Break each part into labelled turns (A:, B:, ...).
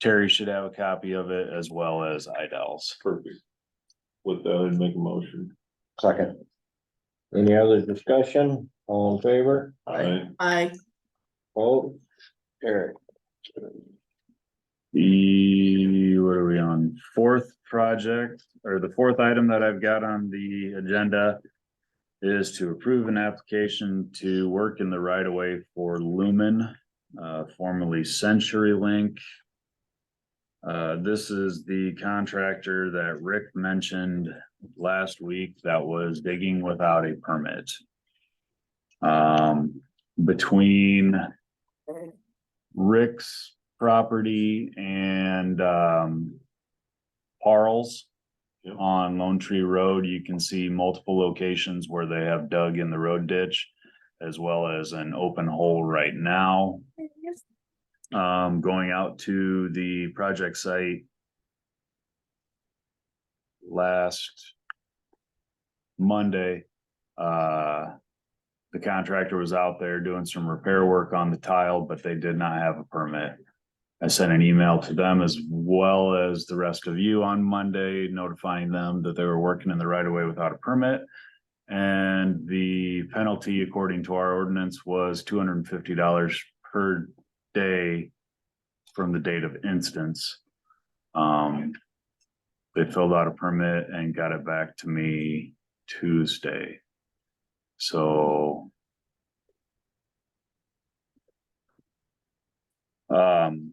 A: Terry should have a copy of it as well as Idell's.
B: Perfect. With that, I'd make a motion.
C: Second. Any other discussion? All in favor?
B: Alright,
D: I,
C: Vote. Eric.
A: The, what are we on? Fourth project, or the fourth item that I've got on the agenda is to approve an application to work in the right of way for Lumen, uh, formerly CenturyLink. Uh, this is the contractor that Rick mentioned last week that was digging without a permit. Um, between Rick's property and um. Parles.
B: Yep.
A: On Lone Tree Road, you can see multiple locations where they have dug in the road ditch. As well as an open hole right now. Um, going out to the project site. Last. Monday, uh. The contractor was out there doing some repair work on the tile, but they did not have a permit. I sent an email to them as well as the rest of you on Monday notifying them that they were working in the right of way without a permit. And the penalty according to our ordinance was two hundred and fifty dollars per day from the date of instance. Um, they filled out a permit and got it back to me Tuesday. So. Um.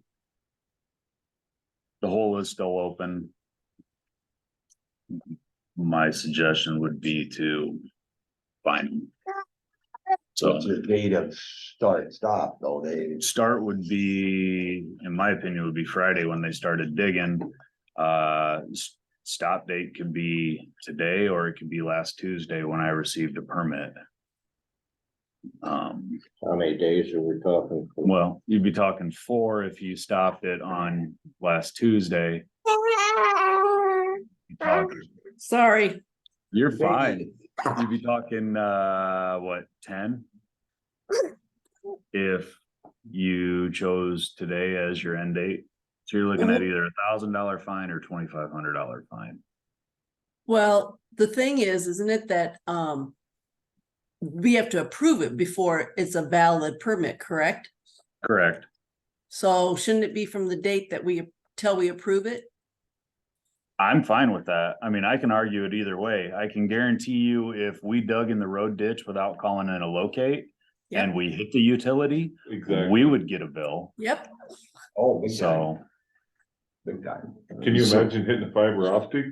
A: The hole is still open. My suggestion would be to find them. So
C: What's the date of start, stop, though, Dave?
A: start would be, in my opinion, would be Friday when they started digging. Uh, s- stop date could be today or it could be last Tuesday when I received a permit. Um.
C: How many days are we talking?
A: Well, you'd be talking four if you stopped it on last Tuesday. You're talking-
D: sorry,
A: You're fine. You'd be talking, uh, what, ten? If you chose today as your end date, so you're looking at either a thousand dollar fine or twenty-five hundred dollar fine.
D: well, the thing is, isn't it that, um. We have to approve it before it's a valid permit, correct?
A: Correct.
D: So shouldn't it be from the date that we, till we approve it?
A: I'm fine with that. I mean, I can argue it either way. I can guarantee you if we dug in the road ditch without calling in a locate and we hit the utility,
B: exactly.
A: we would get a bill.
D: Yep,
C: Oh, big time,
A: So.
C: big time.
B: Can you imagine hitting the fiber optic?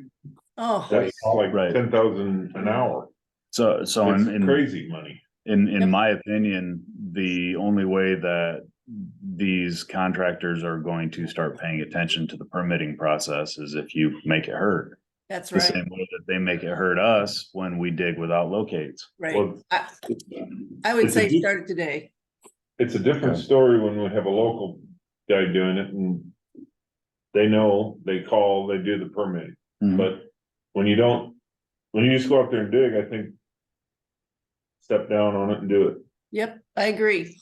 D: oh,
B: That's like
A: Right.
B: ten thousand an hour.
A: So, so in,
B: It's
A: in,
B: crazy money.
A: in, in
D: Yep.
A: my opinion, the only way that these contractors are going to start paying attention to the permitting process is if you make it hurt.
D: that's
A: The
D: right,
A: same way that they make it hurt us when we dig without locates.
D: right.
B: Well,
D: I, I would
B: it's a
D: say
B: deep-
D: start it today.
B: it's a different story when we have a local guy doing it and they know, they call, they do the permit,
A: Mm-hmm.
B: but when you don't, when you just go out there and dig, I think step down on it and do it.
D: Yep, I agree.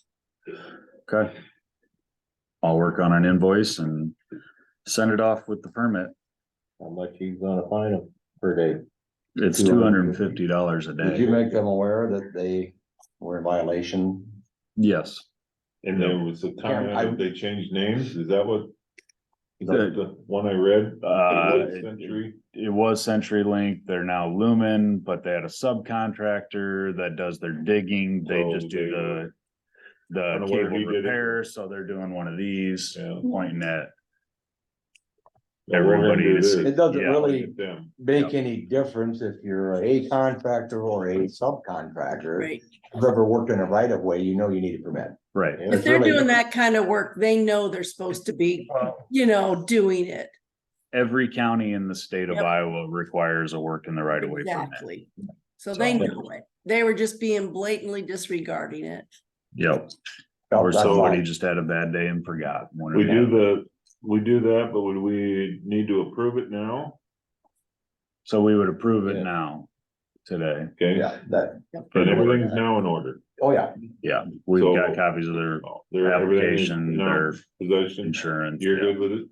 A: Okay. I'll work on an invoice and send it off with the permit.
C: How much he's gonna fine them per day?
A: It's two hundred and fifty
C: $250.
A: dollars a
C: Did you
A: day.
C: make them aware that they were in violation?
A: Yes.
B: And there was a time
C: Yeah, I-
B: that they changed names, is that what? Is
A: The-
B: that the one I read?
A: Uh,
B: It was Century,
A: it was CenturyLink, they're now Lumen, but they had a subcontractor that does their digging, they
B: Oh,
A: just do
B: they-
A: the.
B: I
A: The
B: don't know where
A: cable
B: he did it.
A: repair, so they're doing one of these,
B: Yeah.
A: pointing at,
B: Yeah, we're gonna
A: Everybody
B: do
A: is-
B: this.
C: It doesn't
A: Yeah.
C: really
B: Them.
C: make any difference if you're a contractor or a subcontractor.
D: Right.
C: If you've ever worked in a right of way, you know you need a permit.
A: right,
C: Yeah,
D: If
C: it's
D: they're
C: really-
D: doing that kind of work, they know they're supposed to be, you know, doing it.
A: every county in the state of
D: Yep.
A: Iowa requires a work in the right of way permit.
D: Exactly. So they
A: So-
D: know it. They were just being blatantly disregarding it.
A: Yep,
C: No,
A: or
C: that's
A: somebody
C: all.
A: just had a bad day and forgot. one or
B: Oh, We
A: the
B: do
A: other.
B: the, we do that, but would we need to approve it now?
A: So we would approve it
C: Yeah.
A: now, today,
B: Okay,
C: Yeah, that,
B: and everything's now in order.
C: oh, yeah,
A: yeah, we've got
B: So-
A: copies of their
B: Their
A: application, their
B: Possession,
A: insurance.
B: you're
A: yeah.
B: good with it?